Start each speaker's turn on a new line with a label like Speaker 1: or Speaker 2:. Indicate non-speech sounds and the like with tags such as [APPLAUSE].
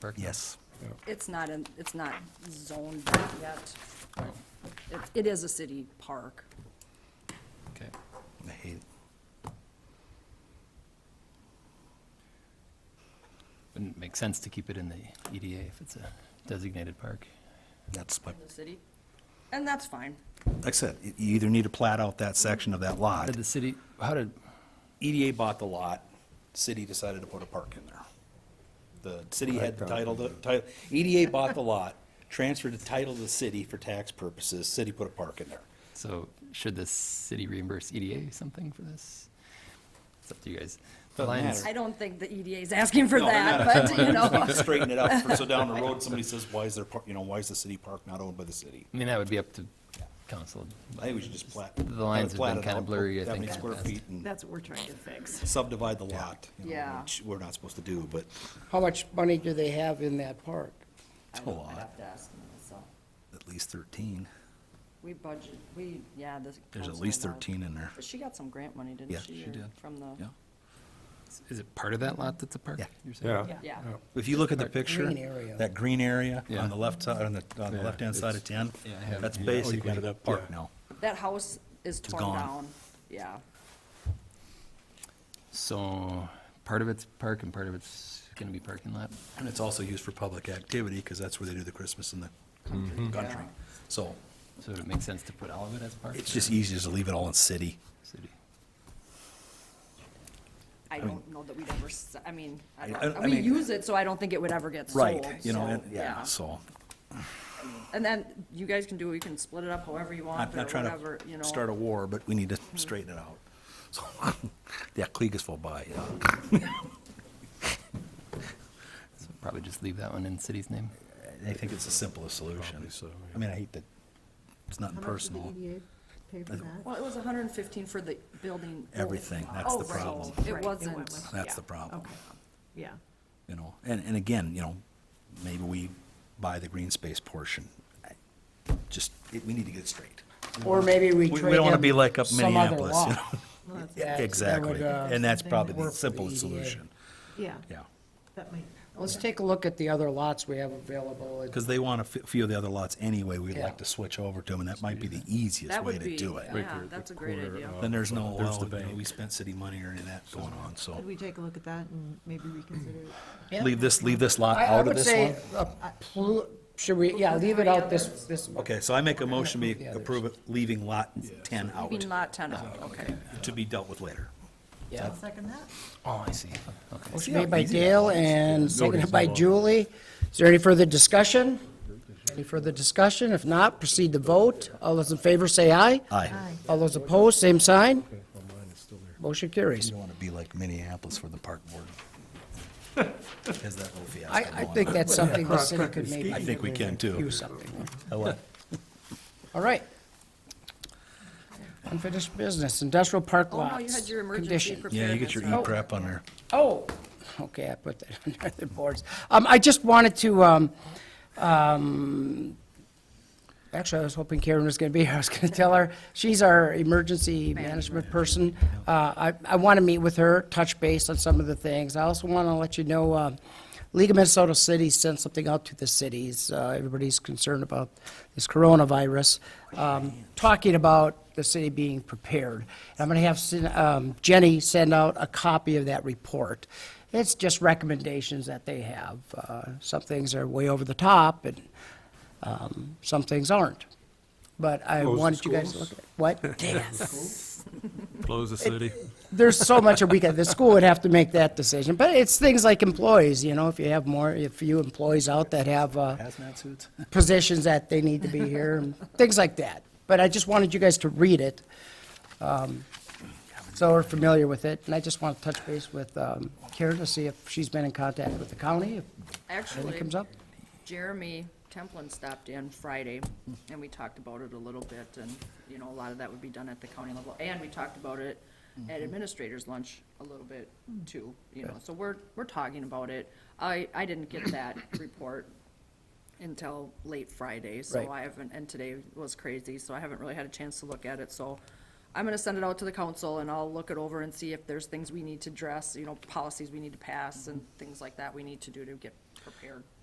Speaker 1: Berkner?
Speaker 2: Yes.
Speaker 3: It's not, in- it's not zoned that yet.
Speaker 1: Right.
Speaker 3: It, it is a city park.
Speaker 1: Okay.
Speaker 2: I hate it.
Speaker 1: Wouldn't make sense to keep it in the EDA if it's a designated park.
Speaker 2: That's my,
Speaker 3: in the city, and that's fine.
Speaker 2: like I said, y- you either need to plat out that section of that lot.
Speaker 1: Did the city, how did,
Speaker 4: E
Speaker 2: EDA bought the lot, city decided to put a park in there.
Speaker 4: The city had the title, the title, EDA bought the lot, transferred the title to the city for tax purposes, city put a park in there.
Speaker 1: so should the city reimburse EDA something for this? It's up to you guys. The
Speaker 4: Doesn't
Speaker 1: Lions,
Speaker 4: matter.
Speaker 3: I don't think the EDA is asking for
Speaker 4: No, they're
Speaker 3: that, but,
Speaker 2: [LAUGHS]
Speaker 3: you know,
Speaker 4: Straighten it out, for- so down the road, somebody says, why is their, par- you know, why is the city park not owned by the city?
Speaker 1: I mean, that would be up to council.
Speaker 4: I think we should just plat.
Speaker 1: The lines have
Speaker 4: plat
Speaker 1: been
Speaker 4: it
Speaker 1: kinda
Speaker 4: out,
Speaker 1: blurry, I
Speaker 4: that
Speaker 1: think,
Speaker 4: many
Speaker 1: in the
Speaker 4: square
Speaker 1: past.
Speaker 4: feet and
Speaker 5: That's what we're trying to fix.
Speaker 4: subdivide the lot, you know,
Speaker 3: Yeah.
Speaker 4: which we're not supposed to do, but
Speaker 6: How much money do they have in that park?
Speaker 3: I
Speaker 2: a
Speaker 3: don't
Speaker 2: lot.
Speaker 3: have to ask them, so.
Speaker 2: At least 13.
Speaker 3: We budget, we, yeah, this.
Speaker 2: There's at
Speaker 3: council
Speaker 2: least
Speaker 3: allowed-
Speaker 2: 13 in there.
Speaker 3: But she got some grant money, didn't
Speaker 2: Yeah,
Speaker 3: she?
Speaker 2: she
Speaker 3: or
Speaker 2: did.
Speaker 3: From
Speaker 2: Yeah.
Speaker 3: the,
Speaker 1: Is it part of that lot that's a park?
Speaker 2: Yeah.
Speaker 1: you're saying?
Speaker 7: Yeah.
Speaker 3: yeah,
Speaker 2: If you look at the picture,
Speaker 6: Green area.
Speaker 2: that green area
Speaker 1: Yeah.
Speaker 2: on the left side, on the, on the
Speaker 7: Yeah,
Speaker 2: left-hand side of 10,
Speaker 1: yeah, I have-
Speaker 2: that's
Speaker 1: yeah, oh, you
Speaker 2: basically
Speaker 7: got it up,
Speaker 2: park
Speaker 7: yeah.
Speaker 2: now.
Speaker 3: that house is torn
Speaker 2: gone.
Speaker 3: down, yeah.
Speaker 1: So part of it's park and part of it's gonna be parking lot?
Speaker 2: And it's also used for public activity because that's where they do the Christmas in
Speaker 7: Mm-hmm.
Speaker 2: the country. So
Speaker 1: So would it make sense to put all of it as park?
Speaker 2: it's
Speaker 1: or
Speaker 2: just easier to leave it all in city.
Speaker 1: City.
Speaker 3: I don't know that we'd ever, s- I mean, I
Speaker 2: I-
Speaker 3: don't-
Speaker 2: I
Speaker 3: we
Speaker 2: mean-
Speaker 3: use it, so I don't think it would ever get sold.
Speaker 2: Right, you know,
Speaker 3: so,
Speaker 2: and- yeah, so.
Speaker 3: And then you guys can do, you can split it up however you
Speaker 2: I'm
Speaker 3: want, or
Speaker 2: not trying
Speaker 3: whatever, you
Speaker 2: to
Speaker 3: know.
Speaker 2: start a war, but we need to straighten it out. So, [LAUGHS] yeah, Clegus will buy, yeah.
Speaker 1: So probably just leave that one in city's name.
Speaker 2: I think it's the simplest solution.
Speaker 7: so, yeah.
Speaker 2: I mean, I hate that, it's nothing
Speaker 8: How much did
Speaker 5: E
Speaker 2: personal.
Speaker 8: the EDA pay for that?
Speaker 3: Well, it was hundred and fifteen for the building.
Speaker 2: Everything, that's
Speaker 3: Oh,
Speaker 2: the
Speaker 3: right.
Speaker 2: problem.
Speaker 5: Right, it
Speaker 3: It
Speaker 5: went
Speaker 3: wasn't.
Speaker 5: with-
Speaker 2: That's
Speaker 3: yeah.
Speaker 2: the problem,
Speaker 5: Yeah.
Speaker 2: you know? And, and again, you know, maybe we buy the green space portion. I- Just, it- we need to get it straight.
Speaker 6: Or maybe we
Speaker 2: We-
Speaker 6: trade
Speaker 2: We don't want to
Speaker 6: in
Speaker 2: be like up
Speaker 6: some other
Speaker 2: Minneapolis, you
Speaker 6: lot.
Speaker 2: know?
Speaker 5: Well, that's-
Speaker 2: Yeah,
Speaker 6: that would,
Speaker 2: Exactly,
Speaker 6: uh,
Speaker 2: and that's probably
Speaker 6: work
Speaker 2: the
Speaker 6: for E
Speaker 2: simplest
Speaker 6: EDA.
Speaker 2: solution,
Speaker 5: Yeah,
Speaker 2: yeah.
Speaker 5: that might.
Speaker 6: [LAUGHS] Let's take a look at the other lots we
Speaker 2: [LAUGHS]
Speaker 6: have available.
Speaker 2: Because they want a fe- few of the other lots anyway, we'd
Speaker 6: Yeah.
Speaker 2: like to switch over to them, and that might be the easiest
Speaker 3: That
Speaker 2: way
Speaker 3: would
Speaker 2: to
Speaker 3: be,
Speaker 2: do it.
Speaker 3: yeah, that's a great idea.
Speaker 6: uh,
Speaker 2: Then there's no,
Speaker 7: There's
Speaker 2: well,
Speaker 7: the
Speaker 2: you know,
Speaker 7: bank.
Speaker 2: we spent city money or any of that going on, so.
Speaker 5: Could we take a look at that and maybe reconsider?
Speaker 6: Yeah.
Speaker 2: Leave this, leave this lot
Speaker 6: I, I
Speaker 2: out of
Speaker 6: would
Speaker 2: this
Speaker 6: say,
Speaker 2: one?
Speaker 6: a plu- should we, yeah, leave it out this, this.
Speaker 2: Okay, so I make a motion, we
Speaker 6: approve the others.
Speaker 2: approve it, leaving lot ten out,
Speaker 3: Leaving lot ten out, okay.
Speaker 2: to be dealt with later.
Speaker 6: Yeah.
Speaker 5: Second that?
Speaker 1: Oh, I see. Okay.
Speaker 6: Motion made by Dale and seconded by Julie. Is there any further discussion? Any further discussion? If not, proceed to vote. All those in favor say aye.
Speaker 2: Aye.
Speaker 6: All those opposed, same sign. Motion carries.
Speaker 2: You don't want to be like Minneapolis for the park board. Has that whole fiasco
Speaker 6: I, I
Speaker 2: going
Speaker 6: think
Speaker 2: on.
Speaker 6: that's something the city could maybe.
Speaker 2: I think we can too.
Speaker 6: do something.
Speaker 2: I like-
Speaker 6: All right. Unfinished business, industrial park
Speaker 3: Oh,
Speaker 6: lots.
Speaker 3: no, you had your emergency
Speaker 6: condition.
Speaker 2: Yeah,
Speaker 3: preparedness.
Speaker 2: you get your
Speaker 3: right?
Speaker 2: E-crap on there.
Speaker 6: Oh, okay, I put that [LAUGHS] under the boards. Um, I just wanted to, um, um, actually, I was hoping Karen was gonna be here. I was gonna tell her, she's our emergency management person. Uh, I, I wanna meet with her, touch base on some of the things. I also wanna let you know, um, League of Minnesota Cities sent something out to the cities. Uh, everybody's concerned about this coronavirus, um, talking about the city being prepared. And I'm gonna have Sin- um, Jenny send out a copy of that report. It's just recommendations that they have. Uh, some things are way over the top and, um, some things aren't. But I
Speaker 7: Close the
Speaker 6: wanted you guys to
Speaker 7: schools?
Speaker 6: look at, what? Yes.
Speaker 7: Close the city.
Speaker 6: there's so much a weekend, the school would have to make that decision, but it's things like employees, you know, if you have more, if you employees out that have, uh,
Speaker 2: Hazmat suits?
Speaker 6: positions that they need to be here, and things like that. But I just wanted you guys to read it, um, so we're familiar with it, and I just want to touch base with, um, Karen to see if she's been in contact with the county, if anything
Speaker 3: Actually,
Speaker 6: comes up.
Speaker 3: Jeremy Templin stopped in Friday, and we talked about it a little bit, and, you know, a lot of that would be done at the county level, and we talked about it at administrators lunch a little bit too, you know, so we're, we're talking about it. I, I didn't get that report until late Friday, so
Speaker 6: Right.
Speaker 3: I haven't, and today was crazy, so I haven't really had a chance to look at it, so I'm gonna send it out to the council and I'll look it over and see if there's things we need to address, you know, policies we need to pass and things like that we need to do to get prepared.